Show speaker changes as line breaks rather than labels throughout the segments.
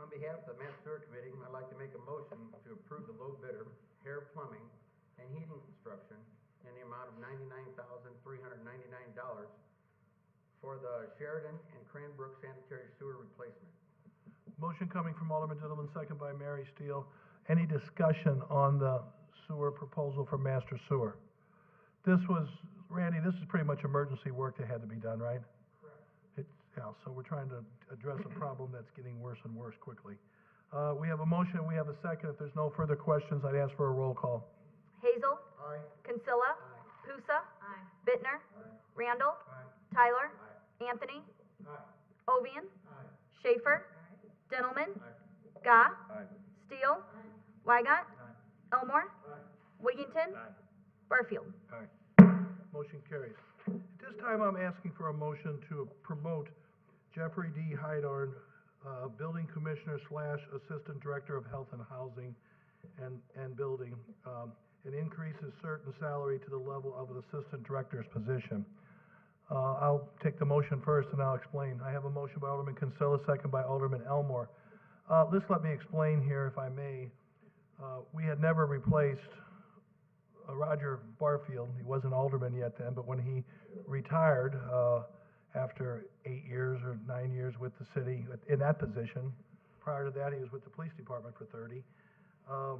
On behalf of the Matt Stewart Committee, I'd like to make a motion to approve the low bidder, Hair Plumbing and Heating Construction, in the amount of ninety-nine thousand, three hundred ninety-nine dollars for the Sheridan and Cranbrook sanitary sewer replacement.
Motion coming from Alderman Dillman, second by Mary Steele. Any discussion on the sewer proposal for master sewer? This was, Randy, this is pretty much emergency work that had to be done, right? Correct. It's, yeah, so we're trying to address a problem that's getting worse and worse quickly. Uh, we have a motion, we have a second. If there's no further questions, I'd ask for a roll call.
Hazel.
Aye.
Consilla. Pusa. Bittner. Randall. Tyler. Anthony. Ovian. Schaefer. Dentelman. Gah. Steele. Wygant. Elmore. Wiggington. Barfield.
Motion carries. At this time, I'm asking for a motion to promote Jeffrey D. Hydarn, uh, Building Commissioner slash Assistant Director of Health and Housing and, and Building, um, and increase his certain salary to the level of an Assistant Director's position. Uh, I'll take the motion first and I'll explain. I have a motion by Alderman Kinsella, second by Alderman Elmore. Uh, just let me explain here, if I may. Uh, we had never replaced uh, Roger Barfield, he wasn't alderman yet then, but when he retired, uh, after eight years or nine years with the city in that position, prior to that, he was with the police department for thirty. Um,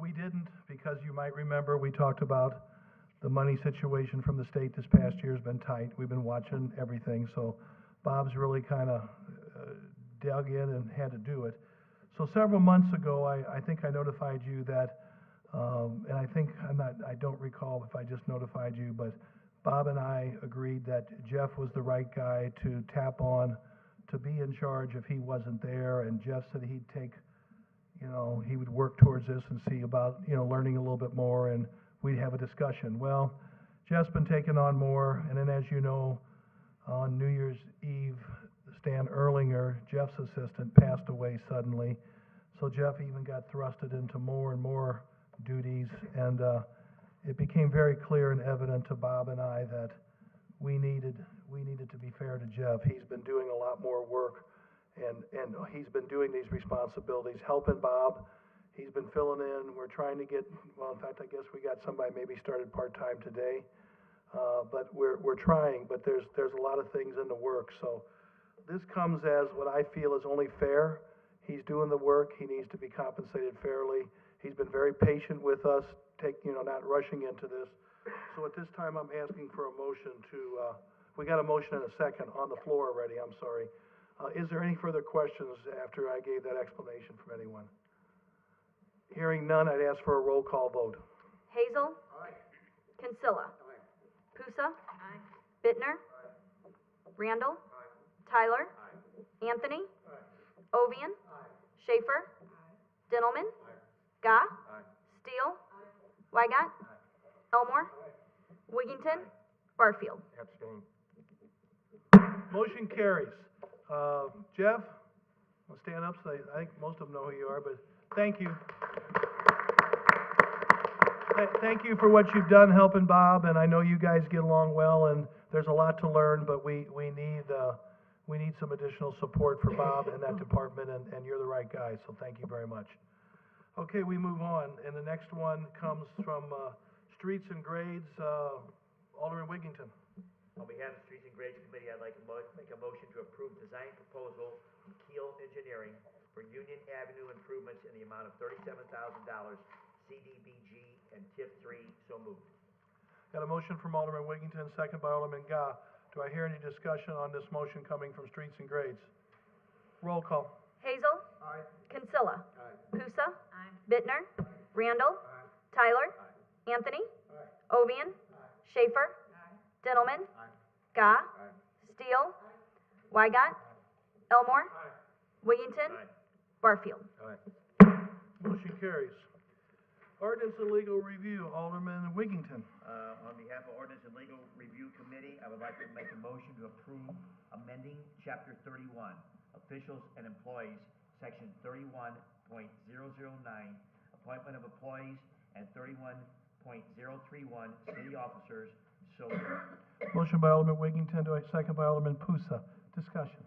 we didn't, because you might remember, we talked about the money situation from the state this past year's been tight. We've been watching everything, so Bob's really kind of dug in and had to do it. So several months ago, I, I think I notified you that, um, and I think, I'm not, I don't recall if I just notified you, but Bob and I agreed that Jeff was the right guy to tap on, to be in charge if he wasn't there, and Jeff said he'd take you know, he would work towards this and see about, you know, learning a little bit more, and we'd have a discussion. Well, Jeff's been taking on more, and then as you know, on New Year's Eve, Stan Erlinger, Jeff's assistant, passed away suddenly. So Jeff even got thrusted into more and more duties, and, uh, it became very clear and evident to Bob and I that we needed, we needed to be fair to Jeff. He's been doing a lot more work and, and he's been doing these responsibilities, helping Bob. He's been filling in, we're trying to get, well, in fact, I guess we got somebody maybe started part-time today. Uh, but we're, we're trying, but there's, there's a lot of things in the works, so this comes as what I feel is only fair. He's doing the work, he needs to be compensated fairly. He's been very patient with us, take, you know, not rushing into this. So at this time, I'm asking for a motion to, uh, we got a motion and a second on the floor already, I'm sorry. Uh, is there any further questions after I gave that explanation from anyone? Hearing none, I'd ask for a roll call vote.
Hazel. Consilla. Pusa. Bittner. Randall. Tyler. Anthony. Ovian. Schaefer. Dentelman. Gah. Steele. Wygant. Elmore. Wiggington. Barfield.
Abstain.
Motion carries. Uh, Jeff, well, stand up, so they- I think most of them know who you are, but thank you. Th- Thank you for what you've done helping Bob, and I know you guys get along well, and there's a lot to learn, but we, we need, uh, we need some additional support for Bob and that department, and, and you're the right guy, so thank you very much. Okay, we move on, and the next one comes from, uh, Streets and Grades, uh, Alderman Wiggington.
On behalf of the Streets and Grades Committee, I'd like to mo- make a motion to approve design proposal from Keel Engineering for Union Avenue improvements in the amount of thirty-seven thousand dollars, CDBG and TIF three, so moved.
Got a motion from Alderman Wiggington, second by Alderman Gah. Do I hear any discussion on this motion coming from Streets and Grades? Roll call.
Hazel. Consilla. Pusa. Bittner. Randall. Tyler. Anthony. Ovian. Schaefer. Dentelman. Gah. Steele. Wygant. Elmore. Wiggington. Barfield.
Motion carries. Ordinance and legal review, Alderman Wiggington.
Uh, on behalf of Ordinance and Legal Review Committee, I would like to make a motion to approve amending Chapter thirty-one, Officials and Employees, Section thirty-one point zero zero nine, Appointment of Employees, and thirty-one point zero three one, City Officers, so moved.
Motion by Alderman Wiggington, do I second by Alderman Pusa? Discussion.